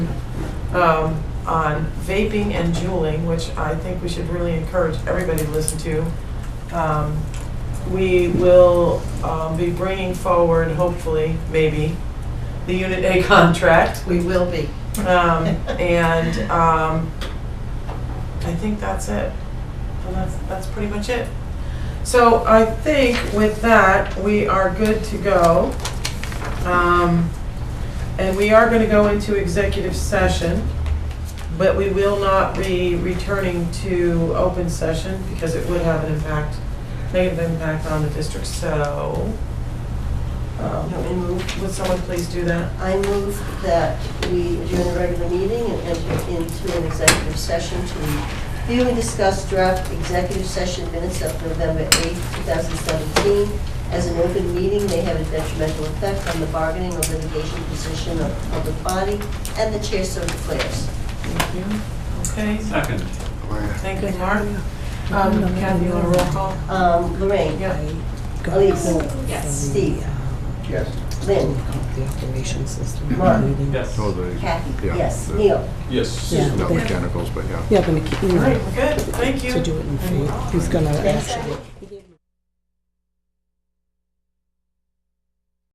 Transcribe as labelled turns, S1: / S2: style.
S1: um, on vaping and juuling, which I think we should really encourage everybody to listen to. Um, We will um, be bringing forward, hopefully, maybe, the Unit A contract.
S2: We will be.
S1: Um, And um, I think that's it. And that's, that's pretty much it. So I think with that, we are good to go. Um, And we are going to go into executive session, but we will not be returning to open session because it would have an impact, negative impact on the district, so. um, Would someone please do that?
S3: I move that we adjourn the regular meeting and enter into an executive session to review and discuss draft executive session minutes of November 8, 2017. As an open meeting may have a detrimental effect on the bargaining or litigation position of the public body, and the chair so declares.
S1: Thank you. Okay,
S4: Second.
S1: thank you, Mark. Um, Kathy, you want a roll call?
S3: Um, Lorraine?
S1: Yeah.
S3: Elise?
S2: Yes.
S3: Steve?
S5: Yes.
S3: Lynn?
S6: The operation system.
S3: Mark.
S4: Yes.
S5: Oh, the,
S3: Kathy?
S5: Yeah.
S3: Yes. Neil?
S4: Yes.
S6: Yeah,
S5: not
S6: they-
S5: mechanicals, but yeah.
S6: yeah, but he- you
S1: All right,
S6: know,
S1: we're good, thank you.
S6: to do it in faith, he's gonna ask.
S3: Yes.